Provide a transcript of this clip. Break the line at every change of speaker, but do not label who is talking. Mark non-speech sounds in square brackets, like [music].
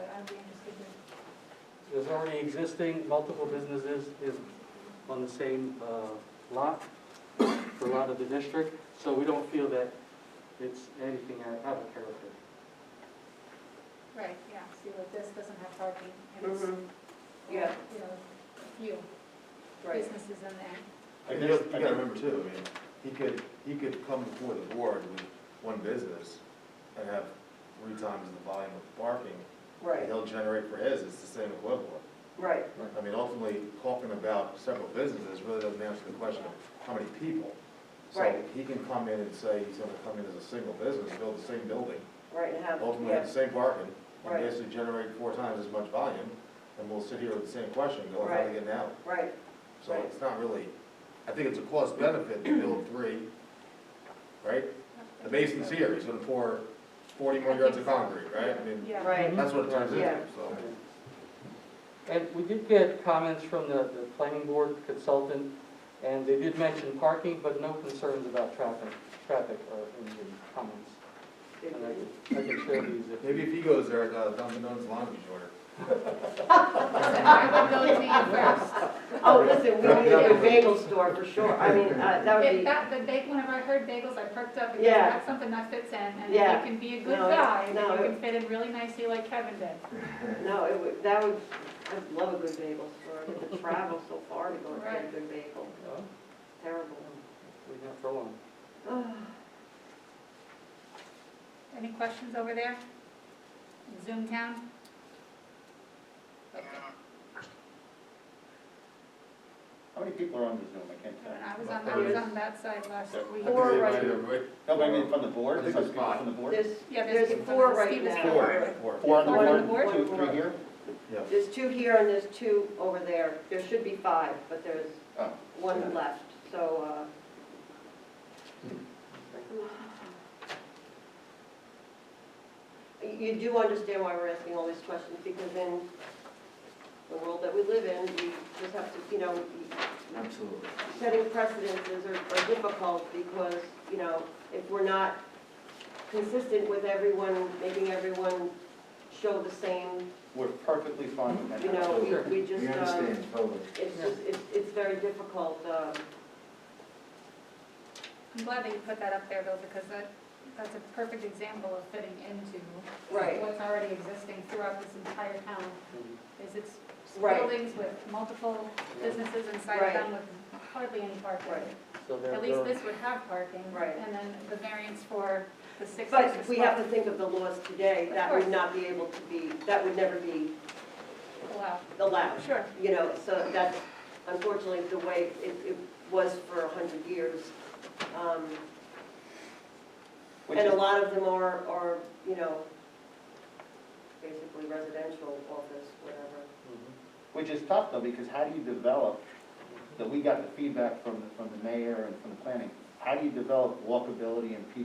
already existing, multiple businesses is on the same uh, lot, for lot of the district, so we don't feel that it's anything out out of character.
Right, yeah, see, like this doesn't have parking, and
Mm-hmm.
it's,
Mhm. Yeah,
you know, a few
right.
businesses in there.
I
And
guess-
you
I
you
guess-
gotta remember too, I mean, he could, he could come before the board with one business and have three times the volume of parking that
Right,
he'll generate for his, it's the same equivalent.
right,
I mean, ultimately, talking about several businesses really doesn't answer the question of how many people. So
Right.
he can come in and say he's gonna come in as a single business, build the same building,
right, and have,
ultimately have
yeah,
the same parking,
Right.
and basically generate four times as much volume, and we'll sit here with the same question, go, how do
Right.
we get it out?
right,
So it's not really, I think it's a cost benefit to build three, right? The basin's here, he's gonna pour forty more yards of concrete, right? I mean,
Yeah.
right,
that's what it turns into,
Yeah.
so.
And we did get comments from the, the planning board consultant, and they did mention parking, but no concerns about traffic, traffic are in the comments. And I can, I can share these if.
Maybe if he goes there, uh, Dunkin' Donuts laundry order.
Listen, I would go to you
[laughs]
first.
Oh, listen, we need to get a bagel store for sure, I mean, uh, that would
If
be,
that, the bag, whenever I heard bagels, I perked up, because
Yeah.
that's something that fits in, and if you
Yeah.
can be a good
No, it-
guy, then you
no, it-
can fit in really nicely like Kevin did.
no, it would, that would, I'd love a good bagel store, I mean, to travel so far to go and get a
Right.
good bagel,
Well,
terrible.
We have for long.
Ah,
Any questions over there? In Zoom town? Okay.
How many people are on the Zoom? I can't tell.
Kevin, I was on, I was on that side last week.
Four right-
No, but I mean from the board?
I think
Some
it's
people
five.
From the board?
There's,
Yeah, there's
there's
people-
four right
Steve is
now.
Four, four.
Four on
Four
the board, two,
Four.
three here?
Yeah.
There's two here and there's two over there, there should be five, but there's
Oh.
one left, so, uh, You do understand why we're asking all these questions, because in the world that we live in, we just have to, you know,
Absolutely.
setting precedences are are difficult, because, you know, if we're not consistent with everyone, making everyone show the same,
We're perfectly fine with that.
you know,
Sure.
we we just,
We
um,
understand totally.
it's just, it's, it's very difficult, um,
I'm glad that you put that up there though, because that, that's a perfect example of fitting into
right,
what's already existing throughout this entire town, is it's
Right.
buildings with multiple businesses inside of them with hardly any parking.
right.
So there
At least
there-
this would have parking.
Right.
And then the variance for the six
But
extra
we have to
spots
think of the laws today, that would
course.
not be able to be, that would never be
allowed.
allowed.
Sure.
You know, so that's unfortunately the way it, it was for a hundred years. Um,
Which
And
is,
a lot of them are, are, you know, basically residential office, whatever.
Mhm.
which is tough though, because how do you develop, that we got the feedback from, the- from the mayor and from the planning, how do you develop walkability and people